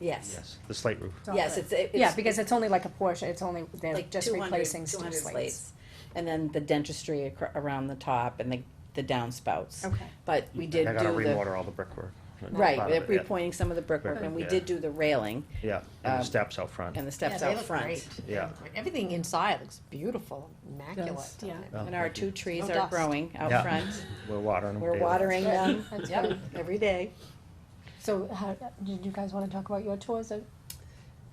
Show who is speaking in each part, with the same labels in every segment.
Speaker 1: Yes,
Speaker 2: The slate roof.
Speaker 3: It's all
Speaker 1: yes,
Speaker 3: it.
Speaker 1: it's, it-
Speaker 3: Yeah,
Speaker 1: it's
Speaker 3: because it's only like a portion, it's only, they're
Speaker 1: like
Speaker 3: just
Speaker 1: 200
Speaker 3: replacing steep
Speaker 1: 200
Speaker 3: slates.
Speaker 1: And then the dentistry acro- around the top and the, the downspouts.
Speaker 3: Okay.
Speaker 1: But we did
Speaker 2: And I gotta
Speaker 1: do the,
Speaker 2: rewater all the brickwork.
Speaker 1: right,
Speaker 2: Part
Speaker 1: they're
Speaker 2: of it, yeah.
Speaker 1: repointing some of the brickwork, and we
Speaker 2: Yeah.
Speaker 1: did do the railing
Speaker 2: Yeah, and
Speaker 1: um,
Speaker 2: the steps out front.
Speaker 1: and the
Speaker 4: Yeah,
Speaker 1: steps
Speaker 4: they
Speaker 1: out
Speaker 4: look
Speaker 1: front.
Speaker 4: great. They
Speaker 2: Yeah.
Speaker 4: look great. Everything inside looks beautiful, immaculate.
Speaker 3: Does, yeah.
Speaker 2: Oh,
Speaker 1: And our
Speaker 2: thank you.
Speaker 1: two trees
Speaker 4: No
Speaker 1: are
Speaker 4: dust.
Speaker 1: growing out
Speaker 2: Yeah.
Speaker 1: front.
Speaker 2: We're watering them.
Speaker 1: We're
Speaker 2: daily.
Speaker 1: watering them
Speaker 3: That's
Speaker 4: Yep.
Speaker 3: good.
Speaker 1: every day.
Speaker 3: So how, did you guys wanna talk about your tours of?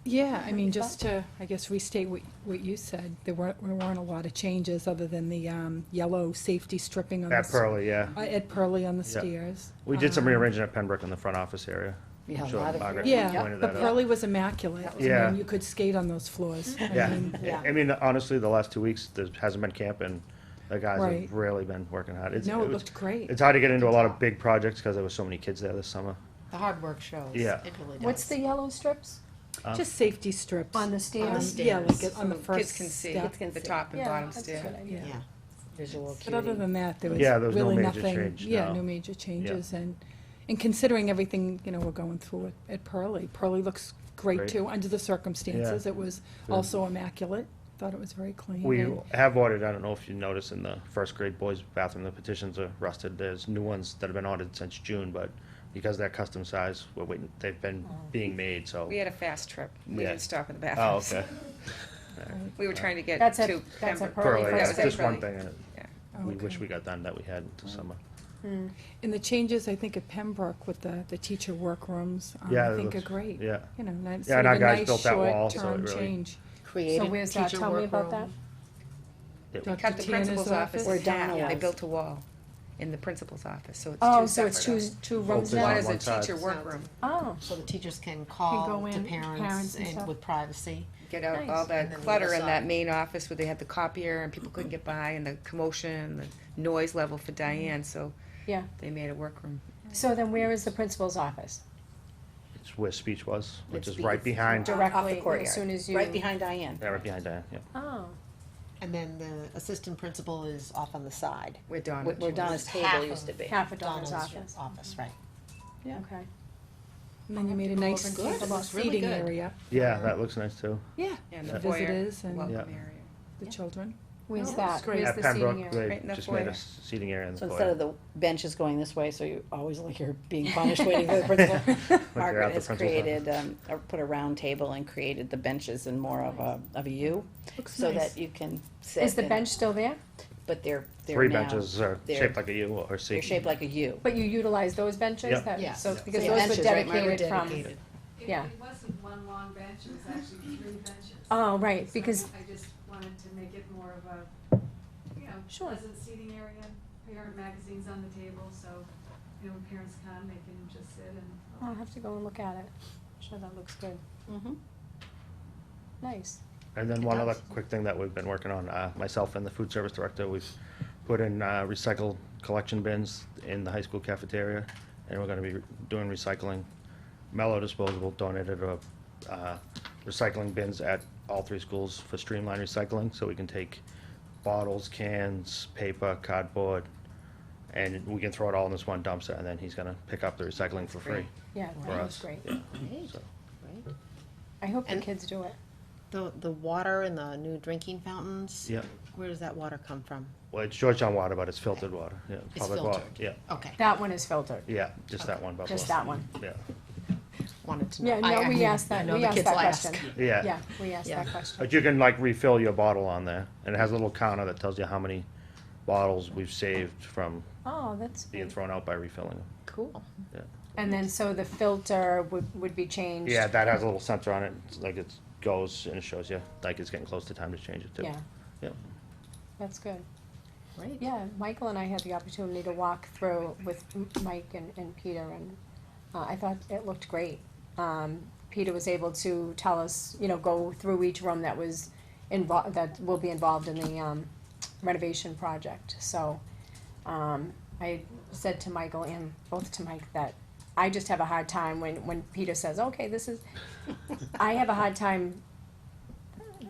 Speaker 5: Yeah, I mean,
Speaker 3: Any
Speaker 5: just to, I guess, restate what, what you said, there weren't, there weren't a lot of changes other than the, um, yellow safety stripping on the.
Speaker 2: At
Speaker 5: s-
Speaker 2: Pearly, yeah.
Speaker 5: uh, At Pearly on the
Speaker 2: Yeah.
Speaker 5: stairs.
Speaker 2: We did some
Speaker 5: Um,
Speaker 2: rearranging at Pembroke in the front office area.
Speaker 1: Yeah, a
Speaker 2: Sure,
Speaker 1: lot of-
Speaker 2: Margaret
Speaker 5: Yeah,
Speaker 2: pointed
Speaker 5: but
Speaker 2: that out.
Speaker 5: Pearly was immaculate.
Speaker 4: That
Speaker 2: was Yeah.
Speaker 5: I mean, you could skate on those floors. I mean,
Speaker 2: Yeah,
Speaker 4: yeah.
Speaker 2: I mean, honestly, the last two weeks, there hasn't been camp and the guys
Speaker 5: Right.
Speaker 2: have really been working hard. It's-
Speaker 5: No, it
Speaker 2: was-
Speaker 5: looked great.
Speaker 2: It's hard to get into a lot of big projects because there was so many kids there this summer.
Speaker 4: The hard work shows.
Speaker 2: Yeah.
Speaker 4: It really does.
Speaker 3: What's the yellow strips
Speaker 2: Um,
Speaker 5: Just safety strips.
Speaker 3: on the
Speaker 5: Um,
Speaker 3: stairs?
Speaker 5: Yeah, like it- on the
Speaker 6: So
Speaker 5: first
Speaker 6: Kids can see
Speaker 5: step.
Speaker 1: can
Speaker 6: the
Speaker 1: see.
Speaker 6: top and
Speaker 3: Yeah,
Speaker 6: bottom
Speaker 3: that's a
Speaker 6: stair.
Speaker 3: good idea.
Speaker 4: Yeah.
Speaker 1: Visual
Speaker 5: But other
Speaker 1: acuity.
Speaker 5: than that, there was
Speaker 2: Yeah, there was no
Speaker 5: really
Speaker 2: major
Speaker 5: nothing,
Speaker 2: change,
Speaker 5: yeah,
Speaker 2: no.
Speaker 5: no major changes, and, and considering everything, you know, we're going through at- at Pearly, Pearly looks great
Speaker 2: Great.
Speaker 5: too, under the circumstances, it was
Speaker 2: Good.
Speaker 5: also immaculate, thought it was very clean.
Speaker 2: We
Speaker 5: and-
Speaker 2: have ordered, I don't know if you noticed, in the first grade boys' bathroom, the petitions are rusted. There's new ones that have been ordered since June, but because they're custom size, we're waiting, they've been being made, so.
Speaker 6: We had a fast trip. We
Speaker 2: Yeah.
Speaker 6: didn't stop in the
Speaker 2: Oh,
Speaker 6: bathrooms.
Speaker 2: okay.
Speaker 6: We were trying to get
Speaker 3: That's a-
Speaker 6: to
Speaker 3: that's a Pearly
Speaker 6: Pembroke.
Speaker 2: Pearly,
Speaker 3: first
Speaker 2: that's
Speaker 6: That was
Speaker 2: just one
Speaker 6: Pearly.
Speaker 2: thing that
Speaker 5: Oh,
Speaker 2: we wish
Speaker 5: okay.
Speaker 2: we got done that we had this summer.
Speaker 5: And the changes, I think, at Pembroke with the, the teacher workrooms, um,
Speaker 2: Yeah,
Speaker 5: I
Speaker 2: it
Speaker 5: think are
Speaker 2: looks-
Speaker 5: great.
Speaker 2: yeah.
Speaker 5: You know, nice,
Speaker 2: Yeah,
Speaker 5: sort
Speaker 2: and
Speaker 5: of
Speaker 2: our
Speaker 5: a
Speaker 2: guys
Speaker 5: nice
Speaker 2: built that wall,
Speaker 5: short
Speaker 2: so it
Speaker 5: term
Speaker 2: really-
Speaker 5: change.
Speaker 3: So
Speaker 1: Created,
Speaker 3: where's that,
Speaker 4: teacher
Speaker 3: tell me about that?
Speaker 4: workroom.
Speaker 2: It-
Speaker 5: Dr.
Speaker 6: Cut the
Speaker 5: Tierna's
Speaker 6: principal's office
Speaker 1: We're
Speaker 6: in
Speaker 1: down
Speaker 6: half. They
Speaker 1: walls.
Speaker 6: built a wall in the principal's office, so it's two separate.
Speaker 3: Oh, so it's two, two rooms
Speaker 2: Open
Speaker 3: now?
Speaker 6: One
Speaker 2: on
Speaker 6: is a
Speaker 2: one side.
Speaker 6: teacher workroom.
Speaker 3: Oh,
Speaker 4: So the teachers can call
Speaker 3: go
Speaker 4: to
Speaker 3: in, parents
Speaker 4: parents
Speaker 3: and
Speaker 4: and
Speaker 3: stuff.
Speaker 4: with privacy.
Speaker 6: Get out
Speaker 3: Nice.
Speaker 6: all
Speaker 4: And
Speaker 6: that
Speaker 4: then the
Speaker 6: clutter
Speaker 4: other
Speaker 6: in that
Speaker 4: side.
Speaker 6: main office where they had the copier and people couldn't get by and the commotion, the noise level for Diane, so
Speaker 3: Mm-hmm. yeah,
Speaker 6: they made a workroom.
Speaker 3: so then where is the principal's office?
Speaker 2: It's where speech was, which
Speaker 1: It's
Speaker 2: is right
Speaker 1: be- it's
Speaker 2: behind,
Speaker 1: direct- Off the
Speaker 3: Directly,
Speaker 1: courtyard.
Speaker 3: as soon as you.
Speaker 1: right behind Diane,
Speaker 2: yeah, right behind Diane, yeah.
Speaker 3: Oh,
Speaker 4: And then the assistant principal is off on the side.
Speaker 6: Where Donna.
Speaker 1: where where
Speaker 6: was.
Speaker 1: Donna's
Speaker 4: It's half
Speaker 1: table
Speaker 4: of-
Speaker 1: used to be.
Speaker 3: half a
Speaker 4: Donna's
Speaker 3: daughter's office,
Speaker 4: office, right.
Speaker 3: okay.
Speaker 5: And then you made a nice
Speaker 4: Good, it
Speaker 5: little
Speaker 4: looks really
Speaker 5: seating
Speaker 4: good.
Speaker 5: area.
Speaker 2: Yeah, that looks nice too.
Speaker 5: Yeah,
Speaker 6: And
Speaker 5: for
Speaker 6: the foyer,
Speaker 5: visitors and
Speaker 6: welcome
Speaker 2: Yeah.
Speaker 6: area.
Speaker 5: the children.
Speaker 3: Where's
Speaker 4: No,
Speaker 3: that,
Speaker 4: it's great.
Speaker 3: where's
Speaker 2: At
Speaker 3: the seating
Speaker 2: Pembroke,
Speaker 3: area?
Speaker 2: they
Speaker 6: Right in the
Speaker 2: just made
Speaker 6: foyer.
Speaker 2: a s- seating area in the
Speaker 1: So
Speaker 2: foyer.
Speaker 1: instead of the benches going this way, so you always look you're being punished waiting for the principal,
Speaker 2: they're at
Speaker 1: Margaret
Speaker 2: the
Speaker 1: has
Speaker 2: principal's
Speaker 1: created, um, or put a round table and created the benches in more of a, of a U,
Speaker 5: Looks
Speaker 1: so
Speaker 5: nice.
Speaker 1: that you can sit.
Speaker 3: Is the
Speaker 1: and-
Speaker 3: bench still there?
Speaker 1: But they're, they're
Speaker 2: Three
Speaker 1: now-
Speaker 2: benches are
Speaker 1: they're-
Speaker 2: shaped like a U or a C.
Speaker 1: They're shaped like a U.
Speaker 3: But you utilize those benches
Speaker 2: Yep.
Speaker 3: that,
Speaker 4: Yes.
Speaker 3: so,
Speaker 4: Yeah.
Speaker 3: because
Speaker 1: The
Speaker 3: those
Speaker 1: benches,
Speaker 3: were
Speaker 1: right, Margaret,
Speaker 3: dedicated from,
Speaker 4: dedicated.
Speaker 7: It,
Speaker 3: Yeah.
Speaker 7: it wasn't one long bench, it was actually three benches.
Speaker 3: oh, right, because,
Speaker 7: So I just wanted to make it more of a, you know,
Speaker 3: Sure.
Speaker 7: pleasant seating area, parent magazines on the table, so, you know, when parents come, they can just sit
Speaker 3: I'll
Speaker 7: and.
Speaker 3: have to go and look at it. Sure, that looks good,
Speaker 4: Mm-hmm.
Speaker 1: Mhm.
Speaker 3: nice.
Speaker 2: And then one other quick thing that we've been working on, uh, myself and the food service director, we've put in uh, recycled collection bins in the high school cafeteria, and we're gonna be doing recycling. Mellow Disposable donated a, uh, recycling bins at all three schools for streamlined recycling, so we can take bottles, cans, paper, cardboard, and we can throw it all in this one dumpster, and then he's gonna pick up the recycling for free.
Speaker 3: Yeah,
Speaker 2: For
Speaker 3: that
Speaker 2: us.
Speaker 3: was great.
Speaker 4: Great,
Speaker 2: So-
Speaker 4: great.
Speaker 3: I hope the
Speaker 4: And-
Speaker 3: kids do it.
Speaker 4: The, the water and the new drinking fountains.
Speaker 2: Yep.
Speaker 4: Where does that water come from?
Speaker 2: Well, it's Georgetown water, but it's filtered water, yeah.
Speaker 4: It's
Speaker 2: public water,
Speaker 4: filtered.
Speaker 2: Yeah,
Speaker 4: Okay,
Speaker 3: That one is filtered,
Speaker 2: yeah, just that one bubble.
Speaker 3: just that one.
Speaker 2: Yeah,
Speaker 4: wanted to know.
Speaker 3: Yeah,
Speaker 4: I-
Speaker 3: no,
Speaker 4: I
Speaker 3: we
Speaker 4: mean,
Speaker 3: asked
Speaker 4: I
Speaker 3: that,
Speaker 4: know
Speaker 3: we
Speaker 4: the
Speaker 3: asked
Speaker 4: kids
Speaker 3: that
Speaker 4: will ask.
Speaker 3: question.
Speaker 2: yeah.
Speaker 3: Yeah, we asked
Speaker 4: Yeah.
Speaker 3: that question.
Speaker 2: But you can like refill your bottle on there, and it has a little counter that tells you how many bottles we've saved from
Speaker 3: Oh, that's
Speaker 2: being
Speaker 3: good.
Speaker 2: thrown out by refilling them.
Speaker 4: Cool.
Speaker 3: And then, so the filter would, would be changed?
Speaker 2: Yeah, that has a little sensor on it, it's like it goes and it shows you, like it's getting close to time to change it too.
Speaker 3: Yeah.
Speaker 2: Yep.
Speaker 3: That's good.
Speaker 4: Great.
Speaker 3: Yeah, Michael and I had the opportunity to walk through with M- Mike and, and Peter, and uh, I thought it looked great. Um, Peter was able to tell us, you know, go through each room that was involved, that will be involved in the um, renovation project. So um, I said to Michael and both to Mike that I just have a hard time when, when Peter says, okay, this is, I have a hard time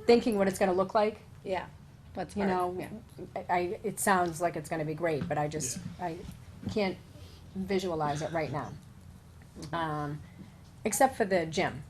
Speaker 3: thinking what it's gonna look like.
Speaker 1: Yeah, that's
Speaker 3: You
Speaker 1: hard.
Speaker 3: know,
Speaker 1: Yeah.
Speaker 3: I- I, it sounds like it's gonna be great, but I just, I
Speaker 1: Mm-hmm.
Speaker 3: can't visualize it right now. Um, except for the gym,